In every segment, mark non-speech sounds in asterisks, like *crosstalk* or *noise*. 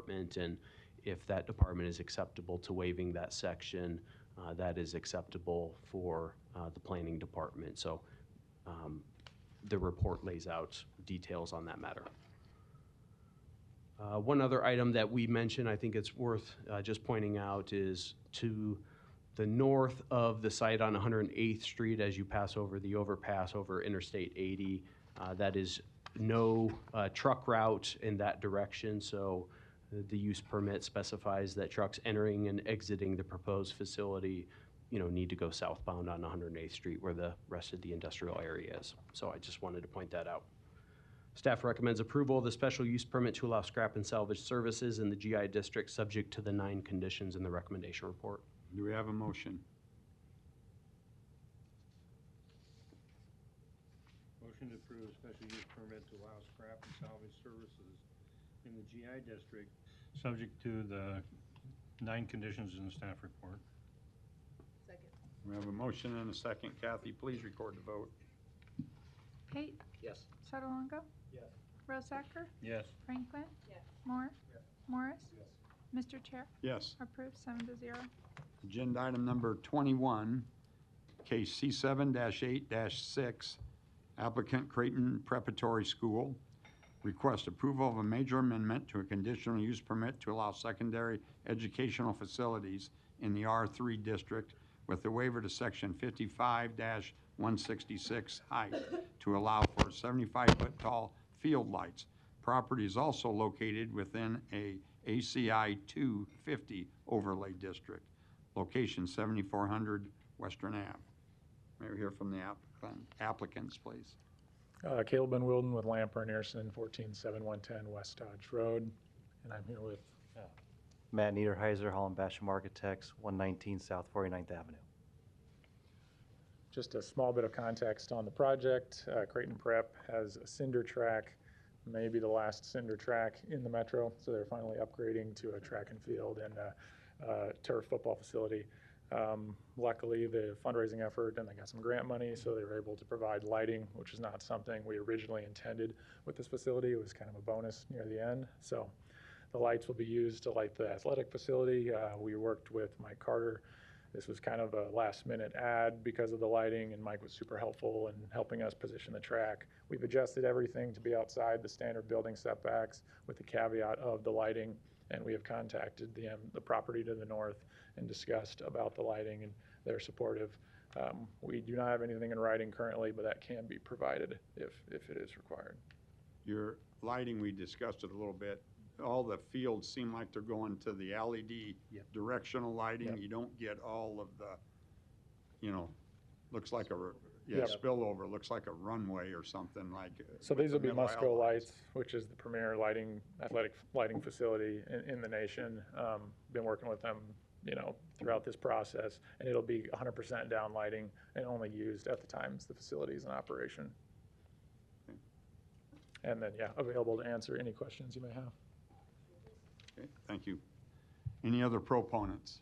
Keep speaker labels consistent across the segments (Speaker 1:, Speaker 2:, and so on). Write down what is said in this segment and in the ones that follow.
Speaker 1: department, and if that department is acceptable to waiving that section, uh, that is acceptable for uh, the planning department. So um, the report lays out details on that matter. Uh, One other item that we mentioned, I think it's worth uh, just pointing out, is to the north of the site on 108th Street, as you pass over the overpass over Interstate 80, uh, that is no uh, truck route in that direction, so the use permit specifies that trucks entering and exiting the proposed facility, you know, need to go southbound on 108th Street where the rest of the industrial area is. So I just wanted to point that out. Staff recommends approval of the special use permit to allow scrap and salvage services in the GI district, subject to the nine conditions in the recommendation report.
Speaker 2: Do we have a motion?
Speaker 3: Motion to approve a special use permit to allow scrap and salvage services in the GI district, subject to the nine conditions in the staff report.
Speaker 4: Second.
Speaker 2: We have a motion and a second. Kathy, please record the vote.
Speaker 5: Pate?
Speaker 3: Yes.
Speaker 5: Sotolongo?
Speaker 3: Yes.
Speaker 5: Rosacker?
Speaker 3: Yes.
Speaker 5: Franklin?
Speaker 4: Yes.
Speaker 5: Moore?
Speaker 3: Yes.
Speaker 5: Morris? Mr. Chair,
Speaker 2: Yes.
Speaker 5: approved seven to zero.
Speaker 2: Agenda item number 21, case C7-8-6, applicant Creighton Preparatory School. Request approval of a major amendment to a conditional use permit to allow secondary educational facilities in the R3 district with the waiver to section 55-166 height to allow for 75-foot tall field lights. Property is also located within a ACI 250 overlay district location 7400 Western Ave. May we hear from the applicant- applicants, please?
Speaker 6: Uh, Caleb Ben Wilden with Lamper and Anderson, 14710 West Dodge Road. And I'm here with,
Speaker 7: Matt Niederheiser, Holland Basham Architects, 119 South 49th Avenue.
Speaker 6: just a small bit of context on the project. Uh, Creighton Prep has a cinder track, maybe the last cinder track in the metro. So they're finally upgrading to a track and field and a uh, turf football facility. Um, Luckily, the fundraising effort, and they got some grant money, so they were able to provide lighting, which is not something we originally intended with this facility. It was kind of a bonus near the end. So The lights will be used to light the athletic facility. Uh, we worked with Mike Carter. This was kind of a last minute ad because of the lighting, and Mike was super helpful in helping us position the track. We've adjusted everything to be outside the standard building setbacks with the caveat of the lighting, and we have contacted the, um, the property to the north and discussed about the lighting, and they're supportive. Um, we do not have anything in writing currently, but that can be provided if, if it is required.
Speaker 2: Your lighting, we discussed it a little bit. All the fields seem like they're going to the LED
Speaker 3: Yep.
Speaker 2: directional lighting.
Speaker 6: Yep.
Speaker 2: You don't get all of the, you know, looks like a, r- yeah,
Speaker 6: Yep.
Speaker 2: spillover, looks like a runway or something like. uh,
Speaker 6: So
Speaker 2: with
Speaker 6: these
Speaker 2: the
Speaker 6: will be
Speaker 2: middle
Speaker 6: Musco
Speaker 2: outlets.
Speaker 6: Lights, which is the premier lighting, athletic lighting facility in, in the nation. Um, been working with them, you know, throughout this process, and it'll be hundred percent down lighting and only used at the times the facility is in operation. And then, yeah, available to answer any questions you may have.
Speaker 2: Okay, Thank you. Any other proponents?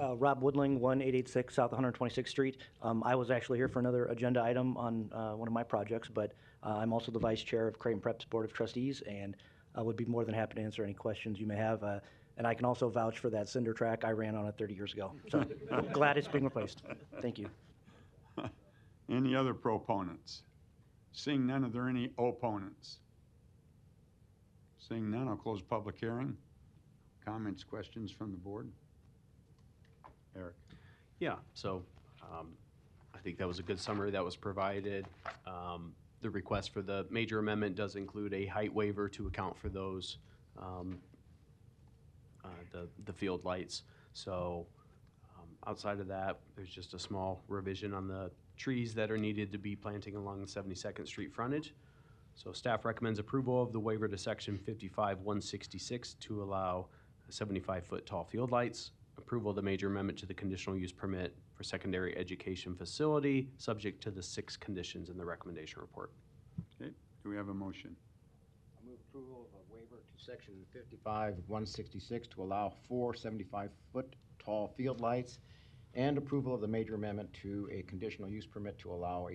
Speaker 7: Uh, Rob Woodling, 1886 South 126th Street. Um, I was actually here for another agenda item on uh, one of my projects, but uh, I'm also the vice chair of Creighton Prep's Board of Trustees, and I would be more than happy to answer any questions you may have. Uh, And I can also vouch for that cinder track. I ran on it 30 years ago. So *laughs* I'm glad it's being replaced. Thank you.
Speaker 2: Any other proponents? Seeing none, are there any opponents? Seeing none, I'll close public hearing. Comments, questions from the board? Eric?
Speaker 1: Yeah, so um, I think that was a good summary that was provided. Um, The request for the major amendment does include a height waiver to account for those, um, uh, the, the field lights. So um, outside of that, there's just a small revision on the trees that are needed to be planting along the 72nd Street frontage. So staff recommends approval of the waiver to section 55-166 to allow 75-foot tall field lights. Approval of the major amendment to the conditional use permit for secondary education facility, subject to the six conditions in the recommendation report.
Speaker 2: Do we have a motion?
Speaker 8: I move approval of a waiver to section fifty-five, one sixty-six to allow four seventy-five-foot tall field lights
Speaker 1: and approval of the major amendment to a conditional use permit to allow a